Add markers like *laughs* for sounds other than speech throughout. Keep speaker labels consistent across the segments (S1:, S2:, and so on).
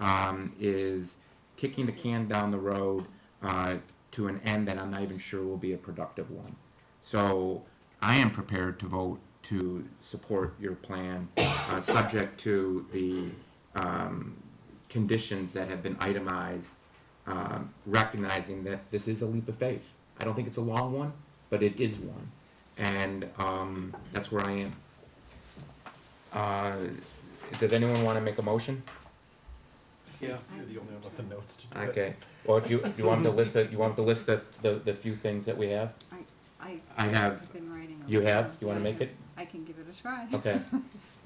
S1: um, is kicking the can down the road uh, to an end that I'm not even sure will be a productive one. So I am prepared to vote to support your plan, uh, subject to the um, conditions that have been itemized, um, recognizing that this is a leap of faith. I don't think it's a long one, but it is one, and um, that's where I am. Uh, does anyone want to make a motion?
S2: Yeah.
S3: You're the only one with the notes to do it.
S1: Okay, or do you, do you want to list the, you want to list the, the, the few things that we have?
S2: I.
S1: I have-
S2: I've been writing. all
S1: You
S2: the
S1: have,
S2: time.
S1: you wanna
S2: Yeah,
S1: make
S2: I
S1: it?
S2: can- I can give it a try.
S1: Okay.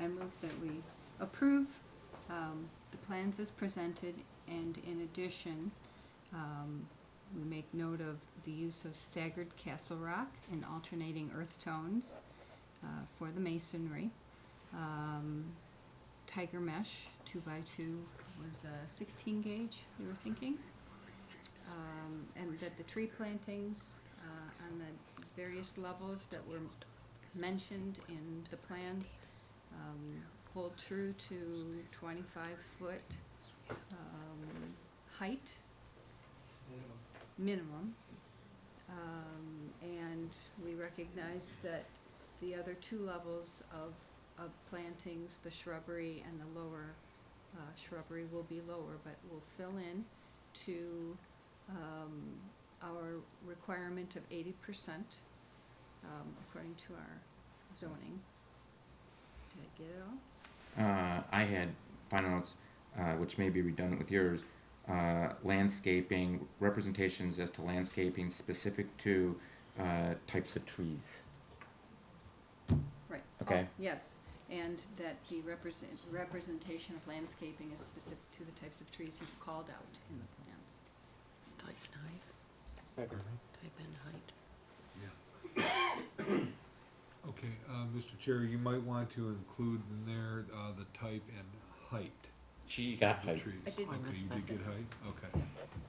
S2: I move that we approve, um, the plans as presented, and in addition, um, we make note of the use of staggered castle rock and alternating earth tones, uh, for the masonry. Um, tiger mesh, two by two, was a sixteen gauge, we were thinking. Um, and that the tree plantings, uh, on the various levels that were mentioned in the plans, um, hold true to twenty-five foot, um, height minimum. Um, and we recognize that the other two levels of, of plantings, the shrubbery and the lower, uh, shrubbery will be lower, but will fill in to, um, our requirement of eighty percent, um, according to our zoning. Did I get it all?
S1: *laughs* Uh, I had final notes, uh, which may be redundant with yours, uh, landscaping, representations as to landscaping specific to, uh, types of trees.
S2: Right.
S1: Okay.
S2: Oh, Yes, and that the represent, representation of landscaping is specific to the types of trees you've called out in the plans.
S4: Type in height,
S3: Pardon me?
S4: type in height.
S5: *coughs* Okay, uh, Mr. Chair, you might want to include in there, uh, the type and height
S1: She got
S5: of the
S1: height.
S5: trees.
S2: I did
S5: Okay,
S4: miss
S5: you
S4: that.
S5: did get height, okay.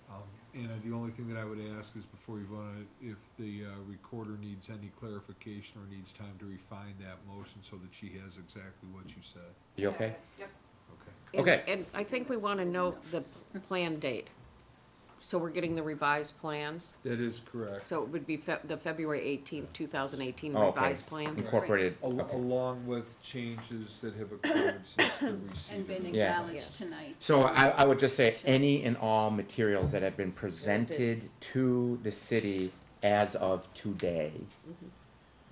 S5: Um, and uh, the only thing that I would ask is before you vote on it, if the, uh, recorder needs any clarification or needs time to refine that motion so that she has exactly what you said,
S1: You okay?
S5: okay?
S4: And-
S1: Okay.
S4: And I think we wanna note the plan date. So we're getting the revised plans,
S5: That is correct.
S4: so it would be Feb- the February eighteenth, two thousand eighteen
S1: Oh, okay.
S4: revised plans.
S1: Incorporated,
S5: Al- along with changes that have occurred since the receipt.
S2: *coughs* And
S5: of
S2: been
S5: the-
S1: Yeah.
S2: acknowledged tonight.
S1: So I, I would just say, any and all materials that have been presented to the city as of today,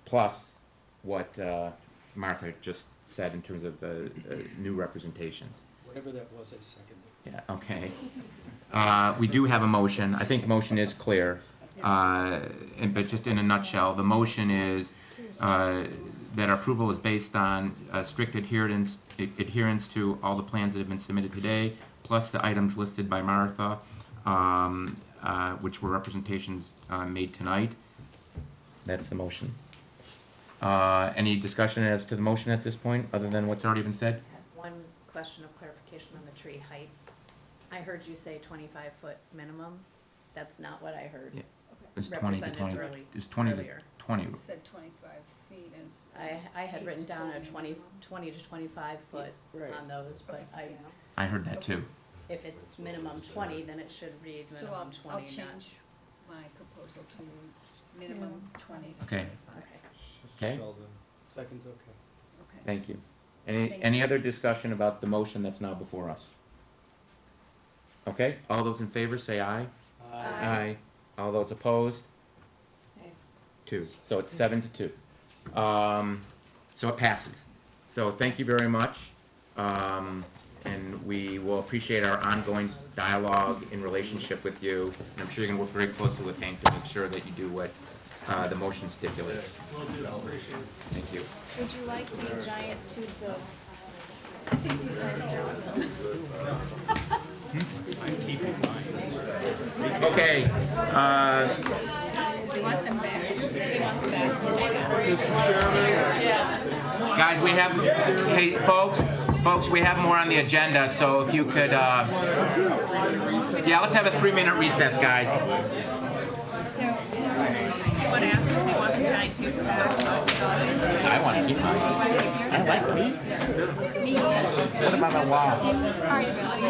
S1: plus what uh, Martha just said in terms of the uh, new representations.
S3: Whatever that was, I seconded.
S1: Yeah, okay. Uh, We do have a motion. I think the motion is clear. Uh, and- But just in a nutshell, the motion is uh, that our approval is based on uh, strict adherence, adherence to all the plans that have been submitted today, plus the items listed by Martha, um, uh, which were representations uh, made tonight. That's the motion. Uh, Any discussion as to the motion at this point, other than what's already been said?
S6: I have one question of clarification on the tree height. I heard you say twenty-five foot minimum. That's not what I heard.
S1: Yeah. It's 20 to
S6: Represented
S1: 20.
S6: early-
S1: It's 20 to
S6: earlier.
S1: 20,
S2: It Said twenty-five feet and. s-
S6: I, I had
S2: Keith
S6: written down
S2: told
S6: a
S2: me
S6: twenty,
S2: minimum.
S6: twenty to twenty-five foot
S4: Right.
S6: on those, but I,
S1: I heard that too.
S6: if it's minimum twenty, then it should read
S2: So I'll,
S6: minimum
S2: I'll
S6: twenty, not.
S2: change my proposal to minimum twenty to
S1: Okay.
S2: twenty-five.
S6: Okay.
S1: Okay.
S5: Sheldon.
S3: Second's okay.
S2: Okay.
S1: Thank you. Any,
S2: Thank
S1: any other discussion about the motion that's now before us? Okay, all those in favor say aye.
S6: Aye.
S1: All those opposed?
S6: Aye.
S1: Two, so it's seven to two. Um, so it passes. So thank you very much. Um, and we will appreciate our ongoing dialogue and relationship with you. And I'm sure you're gonna work very closely with Hank to make sure that you do what, uh, the motion stipulates.
S3: Will do, appreciate it.
S1: Thank you.
S7: Would you like the giant tubes of
S1: Hmm? Okay, uh,
S2: You want them back?
S1: Guys, we have, hey, folks, folks, we have more on the agenda, so if you could, uh, yeah, let's have a three-minute recess, guys.
S7: so? You want to ask if you want the giant tubes back?
S1: I want to keep mine. I like these. Put them on the wall.
S7: Are you really?